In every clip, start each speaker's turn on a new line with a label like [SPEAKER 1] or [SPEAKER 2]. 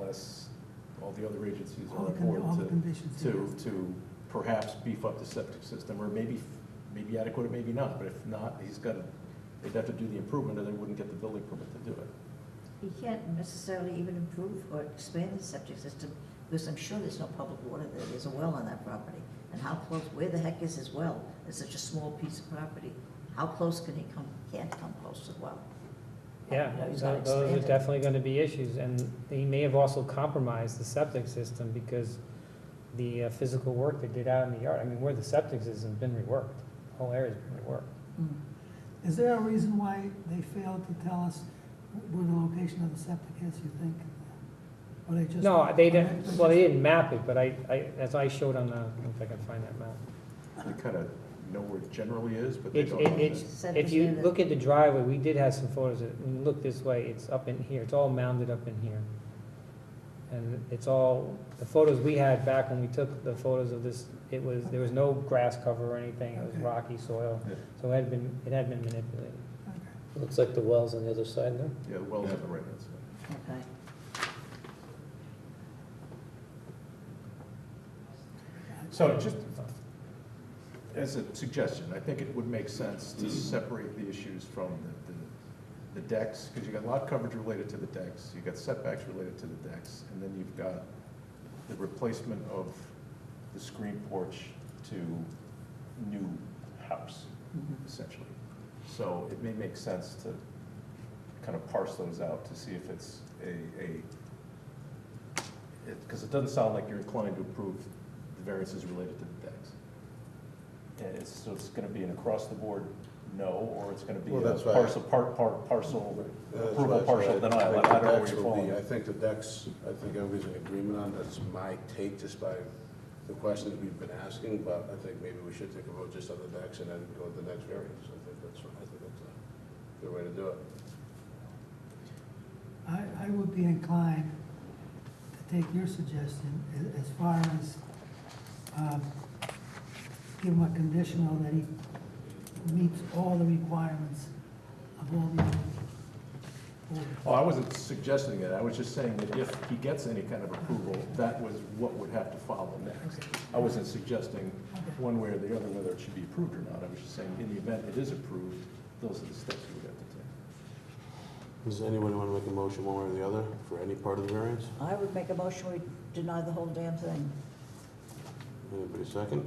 [SPEAKER 1] unless all the other agencies are
[SPEAKER 2] All the
[SPEAKER 1] on
[SPEAKER 2] con-
[SPEAKER 1] board
[SPEAKER 2] all the
[SPEAKER 1] to,
[SPEAKER 2] conditions.
[SPEAKER 1] to, to perhaps beef up the septic system, or maybe, maybe adequate, or maybe not, but if not, he's got to, they'd have to do the improvement, or they wouldn't get the building permit to do it.
[SPEAKER 3] You can't necessarily even improve or expand the septic system, because I'm sure there's no public water there, there's a well on that property. And how close, where the heck is his well? It's such a small piece of property. How close can he come, can't come close to the well?
[SPEAKER 4] Yeah,
[SPEAKER 3] You know, he's
[SPEAKER 4] so
[SPEAKER 3] not
[SPEAKER 4] those are
[SPEAKER 3] expanding.
[SPEAKER 4] definitely gonna be issues, and they may have also compromised the septic system because the uh, physical work they did out in the yard, I mean, where the septic has been reworked, the whole area's been reworked.
[SPEAKER 3] Mm.
[SPEAKER 2] Is there a reason why they failed to tell us where the location of the septic is, you think? Or they just?
[SPEAKER 4] No, they didn't, well, they didn't map it, but I, I, as I showed on the, if I can find that map.
[SPEAKER 2] Uh-huh.
[SPEAKER 1] They kind of know where it generally is, but they
[SPEAKER 4] It,
[SPEAKER 1] don't.
[SPEAKER 4] it,
[SPEAKER 1] know
[SPEAKER 4] it's,
[SPEAKER 1] that.
[SPEAKER 3] Said
[SPEAKER 4] if
[SPEAKER 3] was
[SPEAKER 4] you
[SPEAKER 3] near the-
[SPEAKER 4] look at the driveway, we did have some photos, of it. when you look this way, it's up in here, it's all mounded up in here. And it's all, the photos we had back when we took the photos of this, it was, there was no grass cover or anything, it was
[SPEAKER 2] Okay.
[SPEAKER 4] rocky soil,
[SPEAKER 1] Yeah.
[SPEAKER 4] so it had been, it had been manipulated.
[SPEAKER 5] Looks like the well's on the other side there.
[SPEAKER 1] Yeah, well, on the right hand side.
[SPEAKER 3] Okay.
[SPEAKER 1] So just as a suggestion, I think it would make sense to separate the issues from the, the- the decks, because you got lot coverage related to the decks, you got setbacks related to the decks, and then you've got the replacement of the screen porch to new house,
[SPEAKER 3] Mhm.
[SPEAKER 1] essentially. So it may make sense to kind of parse those out to see if it's a, a, because it doesn't sound like you're inclined to approve the variances related to the decks. And it's, so it's gonna be an across-the-board no, or it's gonna be
[SPEAKER 6] Well,
[SPEAKER 1] a
[SPEAKER 6] that's why-
[SPEAKER 1] parcel, part, part, parcel,
[SPEAKER 6] That's
[SPEAKER 1] approval
[SPEAKER 6] why-
[SPEAKER 1] partial
[SPEAKER 6] Uh, so I-
[SPEAKER 1] denial, I
[SPEAKER 6] I think the
[SPEAKER 1] don't know where
[SPEAKER 6] decks
[SPEAKER 1] you're
[SPEAKER 6] will be-
[SPEAKER 1] falling.
[SPEAKER 6] I think the decks, I think everybody's in agreement on, that's my take just by the questions we've been asking, but I think maybe we should take a vote just on the decks and then go to the next variance. I think that's, I think that's a good way to do it.
[SPEAKER 2] I, I would be inclined to take your suggestion a- as far as, um, give him a conditional that he meets all the requirements of all the.
[SPEAKER 1] Well, I wasn't suggesting it, I was just saying that if he gets any kind of approval, that was what would have to follow next. I wasn't suggesting one way or the other whether it should be approved or not, I was just saying, in the event it is approved, those are the steps we would have to take.
[SPEAKER 6] Does anybody want to make a motion one way or the other for any part of the variance?
[SPEAKER 3] I would make a motion, we deny the whole damn thing.
[SPEAKER 6] Anybody second?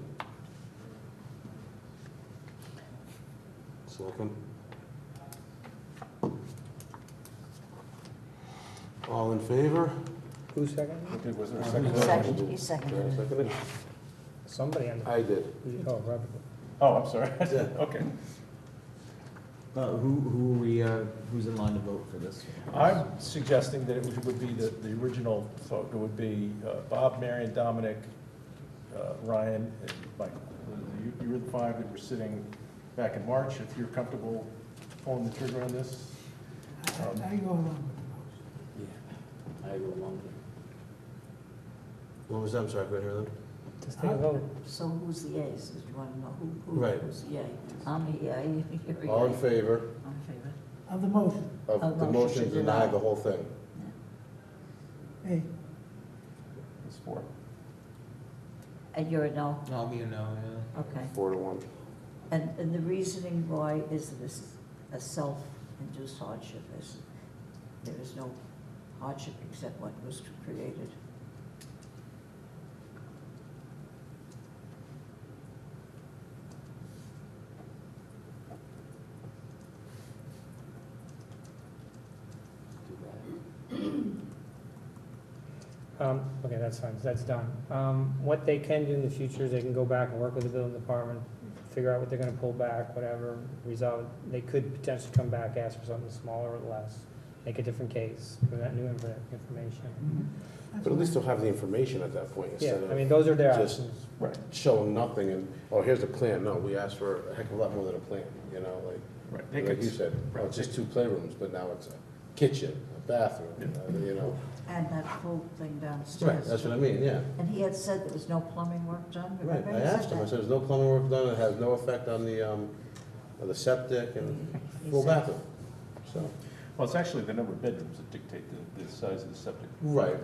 [SPEAKER 6] Second? All in favor?
[SPEAKER 4] Who's second?
[SPEAKER 1] Okay, was there a
[SPEAKER 6] Second.
[SPEAKER 3] Second, he seconded it.
[SPEAKER 6] Seconded?
[SPEAKER 4] Somebody on the,
[SPEAKER 6] I did.
[SPEAKER 4] oh, Robert.
[SPEAKER 1] Oh, I'm sorry, okay.
[SPEAKER 7] Uh, who, who are we, uh, who's in line to vote for this?
[SPEAKER 1] I'm suggesting that it would- would be the, the original, so it would be uh, Bob, Marion, Dominic, uh, Ryan, and Mike. You, you were the five that were sitting back in March, if you're comfortable pulling the trigger on this.
[SPEAKER 2] I, I go along with the motion.
[SPEAKER 5] I go along with it.
[SPEAKER 6] What was that, I'm sorry, I couldn't hear them.
[SPEAKER 4] Just take a vote.
[SPEAKER 3] So who's the yeas? Do you want to know who, who,
[SPEAKER 6] Right.
[SPEAKER 3] who's the yea? I'm a yea, you're a yea.
[SPEAKER 6] All in favor
[SPEAKER 3] I'm in favor.
[SPEAKER 2] Of the motion,
[SPEAKER 3] Oh,
[SPEAKER 6] of the motion to deny the whole thing?
[SPEAKER 2] hey,
[SPEAKER 1] It's four.
[SPEAKER 3] And you're a no?
[SPEAKER 7] I'll be a no, yeah.
[SPEAKER 3] Okay.
[SPEAKER 6] Four to one.
[SPEAKER 3] And, and the reasoning why is that this is a self-induced hardship is, there is no hardship except what was created.
[SPEAKER 4] Um, okay, that's fine, that's done. Um, what they can do in the future is they can go back and work with the building department, figure out what they're gonna pull back, whatever, resolve. it. They could potentially come back, ask for something smaller or less, make a different case for that new infor- information.
[SPEAKER 2] that's
[SPEAKER 6] But at
[SPEAKER 2] what
[SPEAKER 6] least they'll have the information at that point
[SPEAKER 4] Yeah,
[SPEAKER 6] instead
[SPEAKER 4] I mean,
[SPEAKER 6] of
[SPEAKER 4] those are their
[SPEAKER 6] just-
[SPEAKER 4] options.
[SPEAKER 1] Right.
[SPEAKER 6] showing nothing and, oh, here's a plan. No, we asked for a heck of a lot more than a plan, you know, like,
[SPEAKER 1] Right. They
[SPEAKER 6] like
[SPEAKER 1] could-
[SPEAKER 6] you said, oh, it's just two playrooms, but now it's a kitchen, a bathroom, uh, you know.
[SPEAKER 3] And that whole thing
[SPEAKER 6] Right,
[SPEAKER 3] downstairs.
[SPEAKER 6] that's what I mean, yeah.
[SPEAKER 3] And he had said there was no plumbing work done,
[SPEAKER 6] Right,
[SPEAKER 3] remember?
[SPEAKER 6] I
[SPEAKER 3] He said
[SPEAKER 6] asked him, I
[SPEAKER 3] that.
[SPEAKER 6] said, there's no plumbing work done, it has no effect on the, um, on the septic and
[SPEAKER 3] He
[SPEAKER 6] full
[SPEAKER 3] said-
[SPEAKER 6] bathroom, so.
[SPEAKER 1] Well, it's actually the number of bedrooms that dictate the, the size of the septic.
[SPEAKER 6] Right,